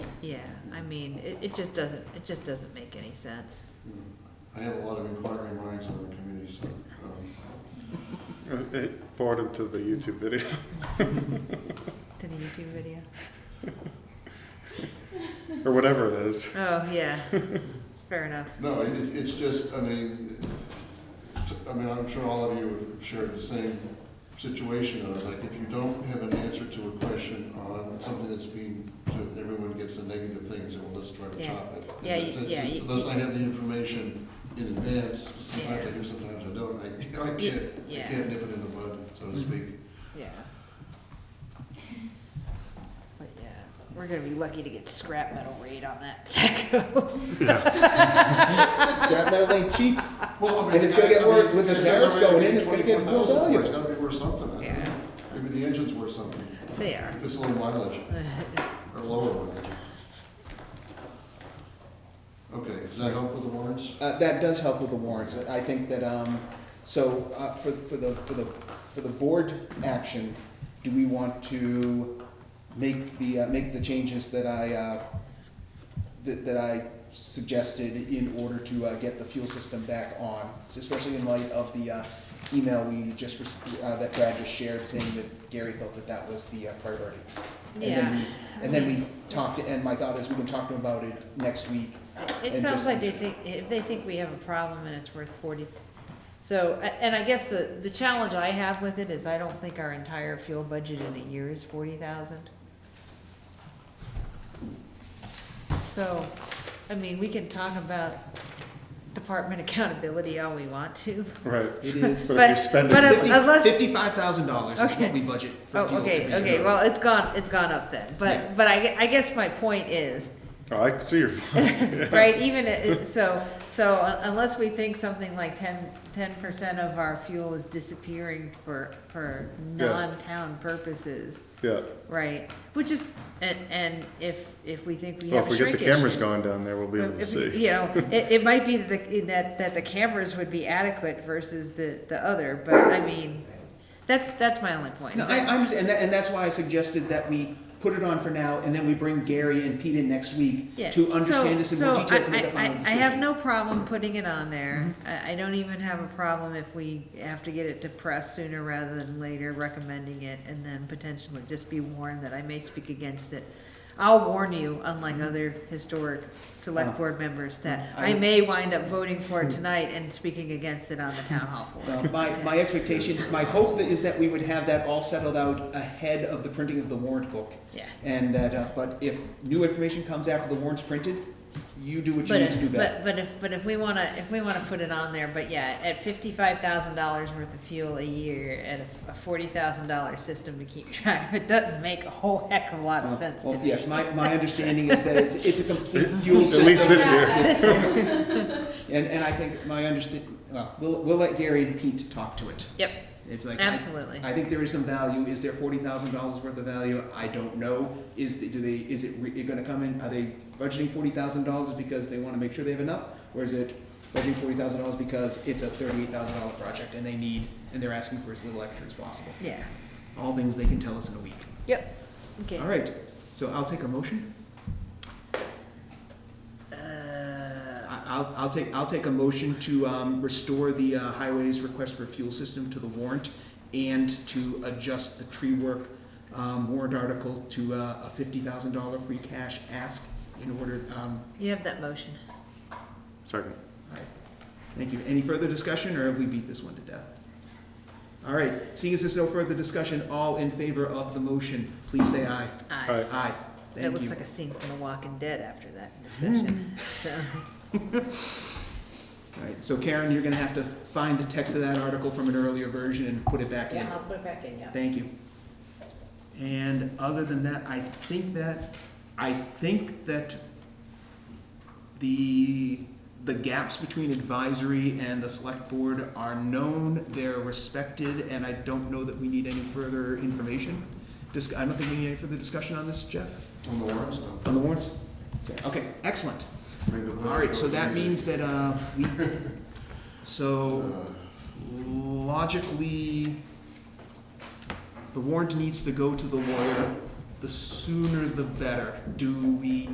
Yeah, I mean, it, it just doesn't, it just doesn't make any sense. Hmm. I have a lot of inquiring minds on the committee, so, um, Uh, Forward him to the YouTube video. Did a YouTube video? or whatever it is. Oh, yeah, fair enough. no, it, it's just, I mean, t- I mean, I'm sure all of you have shared the same situation, I was like, if you don't have an answer to a question on something that's being, so that everyone gets a negative thing, and say, well, let's try to Yeah. chop it. And Yeah, you- it's- it's yeah, just- you- Unless I have the information in advance, sometimes I Yeah. do, sometimes I don't, I, I Ye- can't, I yeah. Mm-hmm. can't nip it in the bud, so to speak. Yeah. But yeah, we're gonna be lucky to get scrap metal rate on that tobacco. Scrap metal ain't cheap. Well, I mean, And it's gonna get I- I mean, worse- with the it's tariffs already going in, it's gonna get more 24,000 for it. It's valuable. gotta be worth something. I don't Yeah. know. Maybe the engine's worth something. They are. It's low mileage, or lower mileage. Okay, does that help with the warrants? Uh, that does help with the warrants. I I think that, um, so, uh, for, for the, for the, for the board action, do we want to make the, uh, make the changes that I, uh, that, that I suggested in order to, uh, get the fuel system back on? Especially in light of the, uh, email we just, rec- uh, that Brad just shared saying that Gary felt that that was the uh, priority. And then Yeah. we- And then we talked, and my thought is we can talk to him about it next week. It Uh, and sounds just- like they think, if they think we have a problem and it's worth forty, so, a- and I guess the, the challenge I have with it is I don't think our entire fuel budget in a year is forty thousand. So, I mean, we can talk about department accountability all we want to, Right. It is. But, if But- you're spending but uh, it, if- unless- fifty-five thousand dollars is Okay. what we budget for Oh, fuel every okay, year. okay, well, it's gone, it's gone up then, Yeah. but, but I, gue- I guess my point is, oh, I can see your right, even, i- so, so un- unless we think something like ten, ten percent of our fuel is disappearing for, for Yeah. non-town purposes, yeah. right? Which is, and, and if, if we think we Well, have if we get the shrinkage. cameras going down there, we'll be able to if- see. You know, it, it might be that, the- that, that the cameras would be adequate versus the, the other, but I mean, that's, that's my only point. No, I, I'm, and that, and that's why I suggested that we put it on for now, and then we bring Gary and Pete in next week Yeah, to understand this in more so- so detail I- to make a I- final I- decision. Mm-hmm. I have no problem putting it on there. I, I don't even have a problem if we have to get it to press sooner rather than later, recommending it, and then potentially just be warned that I may speak against it. I'll warn you, unlike other historic select board members, that I Mm-hmm. Oh. I- Hmm. may wind up voting for it tonight and speaking against it on the town hall floor. Uh, My, my expectation, my hope that- is that we would have that all settled out ahead of the printing of the warrant book. Yeah. And that, uh, but if new information comes after the warrant's printed, you do what you But, need to do, if- Beth. but, but if, but if we wanna, if we wanna put it on there, but yeah, at fifty-five thousand dollars worth of fuel a year and a forty thousand dollar system to keep track of, it doesn't make a whole heck of a lot of sense to Well, me. yes, my, my understanding is that it's, it's a complete fuel At system. least this year. This is- And, and I think my understand, well, we'll, we'll let Gary and Pete talk to it. Yep, It's like. I- absolutely. I think there is some value. Is there forty thousand dollars worth of value? I don't know. Is, the- do they, is it, re- it gonna come in, are they budgeting forty thousand dollars because they wanna make sure they have enough? Or is it budgeting forty thousand dollars because it's a thirty-eight thousand dollar project and they need, and they're asking for as little extra as possible? Yeah, All things they can tell us in a week. yep, okay. All right, so I'll take a motion. Uh, I- I'll, I'll take, I'll take a motion to, um, restore the, uh, highways request for fuel system to the warrant and to adjust the tree work, um, warrant article to, uh, a fifty thousand dollar free cash ask in order, um, you have that motion. Second. all right. Thank you. Any further discussion, or have we beat this one to death? All right, seeing as there's no further discussion, all in favor of the motion, please say aye. Aye. Aye. Aye, thank you. Hmm. That looks like a scene from The Walking Dead after that discussion, so, All right, so Karen, you're gonna have to find the text of that article from an earlier version and put it back in. Yeah, I'll put it back in, yeah. Thank you. And other than that, I think that, I think that the, the gaps between advisory and the select board are known, they're respected, and I don't know that we need any further information. Dis, I don't think we need any further discussion on this, Jeff, On the warrants, no. on the warrants? Okay, excellent. I mean, the All right, so that warrants- means that, uh, we, so Uh, logically, the warrant needs to go to the lawyer, the sooner the better. Do we